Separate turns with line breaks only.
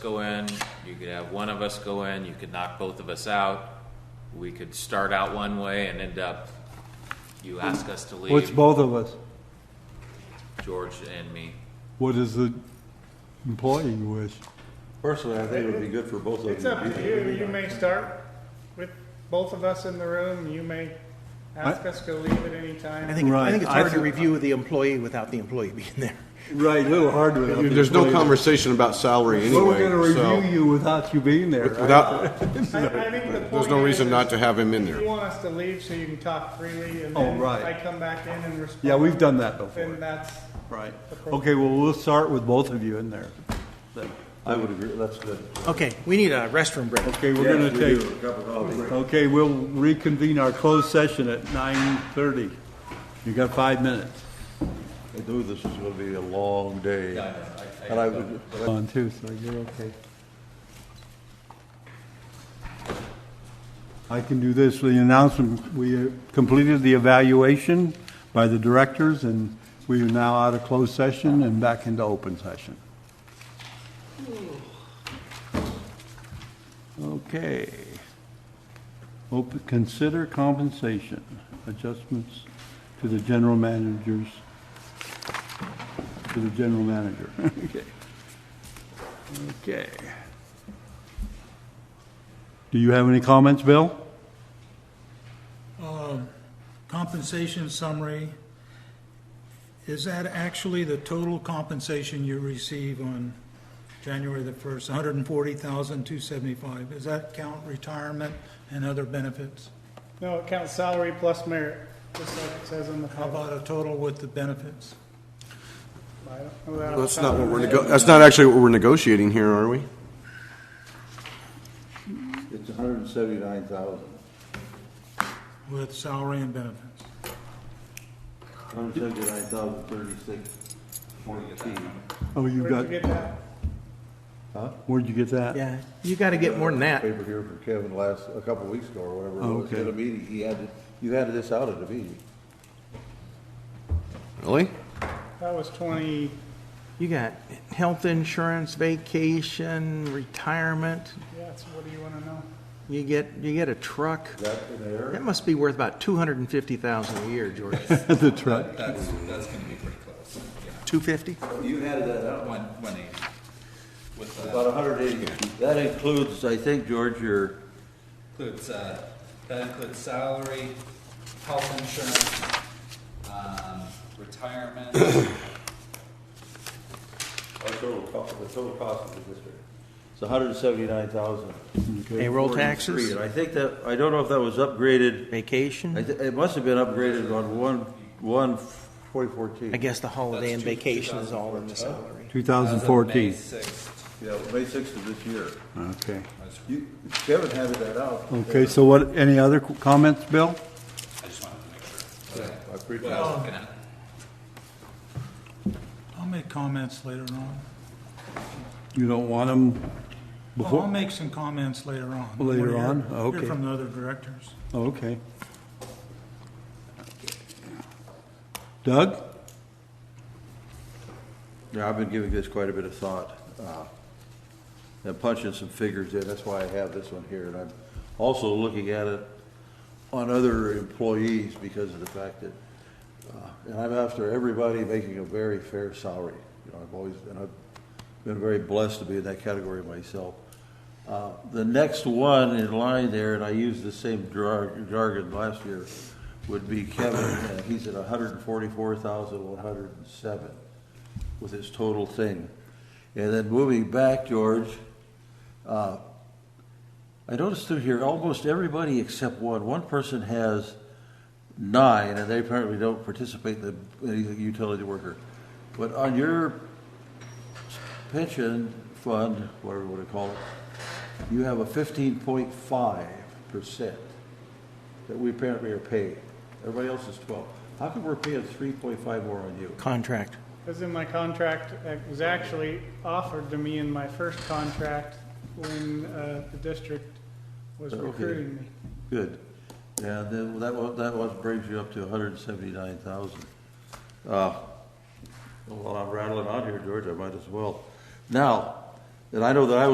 go in, you could have one of us go in, you could knock both of us out. We could start out one way and end up, you ask us to
What's
leave,
both of us?
George and me.
What does the employee wish?
Personally, I think it would be good for both of them.
It's up
be
to
there.
you, you may start with both of us in the room, you may ask us to leave at any time.
I think,
Right.
I think it's
I
hard to
thi-
review the employee without the employee being there.
Right, a little hard without the
There's no
employee.
conversation about salary
Well, we're
anyway,
gonna
so,
review you without you being there, right?
without,
I- I think the
there's no
point
reason
is-
not to have him in
You
there.
want us to leave so you can talk freely and
Oh,
then
right.
I come back in and respond.
Yeah, we've done that
Then
before.
that's,
Right. Okay, well, we'll start with both of you in there.
I would agree, that's good.
Okay, we need a restroom break.
Okay, we're gonna
Yes, we
take,
do. A cup of coffee.
okay, we'll reconvene our closed session at nine thirty. You got five minutes.
I knew this was gonna be a long day. And I would,
On too, so you're okay. I can do this, the announcement, we completed the evaluation by the directors, and we are now out of closed session and back into open session. Okay. Open, consider compensation adjustments to the general managers, to the general manager. Okay. Okay. Do you have any comments, Bill?
compensation summary, is that actually the total compensation you receive on January the 1st, 140,275? Does that count retirement and other benefits?
no, it counts salary plus merit, just like it says on the
How
cover.
about a total with the benefits?
I don't know that off
That's
the
not
top
what
of my
we're,
head.
nego- that's not actually what we're negotiating here, are we?
it's a hundred and seventy-nine thousand.
With salary and benefits?
Hundred and seventy-nine thousand thirty-six fourteen.
Oh, you
Where'd
got,
you get that?
where'd you get that?
Yeah, you gotta get more than that.
Paper here for Kevin last, a couple of weeks ago or whatever. it was.
Okay.
At a meeting, he had, it- you had this out at a meeting.
Really?
That was twenty,
You got health insurance, vacation, retirement,
yeah, so what do you wanna know?
you get, you get a truck.
That in there?
That must be worth about two hundred and fifty thousand a year, George.
The truck.
Two fifty?
You had that out.
One, one eighty. With, uh,
About a hundred and eighty. That includes, I think, George, your,
includes, uh, that includes salary, health insurance, um, retirement,
our total cost, the total cost of the district. It's a hundred and seventy-nine thousand.
Payroll taxes,
And I think that, I don't know if that was upgraded, I
vacation,
thi- it must have been upgraded on one, one, twenty fourteen.
I guess the holiday and
That's two-
vacation is all in the salary.
as of May
2014.
sixth.
Yeah, May sixth of this year.
Okay.
You, Kevin handed that out.
Okay, so what, any other qu- comments, Bill?
I just wanted to make sure.
I appreciate
What I was looking at.
I'll make comments later on.
You don't want them
Well, I'll
before?
make some comments later on.
Later
We'll hear-
on?
Hear
Okay.
from the other directors.
Oh, Okay. Doug?
Yeah, I've been giving this quite a bit of thought, uh, and punching some figures in, that's why I have this one here, and I'm also looking at it on other employees because of the fact that, uh, and I'm after everybody making a very fair salary, you know, I've always, and I've been very blessed to be in that category myself. Uh, The next one in line there, and I used the same jar- jargon last year, would be Kevin, and he's at hundred and forty-four thousand, one hundred and seven with his total thing. And then moving back, George, uh, I noticed through here, almost everybody except one, one person has nine, and they apparently don't participate in the in the utility worker. But on your pension fund, whatever you want to call it, you have a fifteen point five percent that we apparently are paying. Everybody else is twelve. How come we're paying three point five more on you?
Contract.
Because in my contract, it was actually offered to me in my first contract when uh, the district was
Okay.
recruiting me.
Good. Yeah, then that was, that was, brings you up to hundred and seventy-nine thousand. Ah, While I'm rattling on here, George, I might as well. Now, and I know that I was.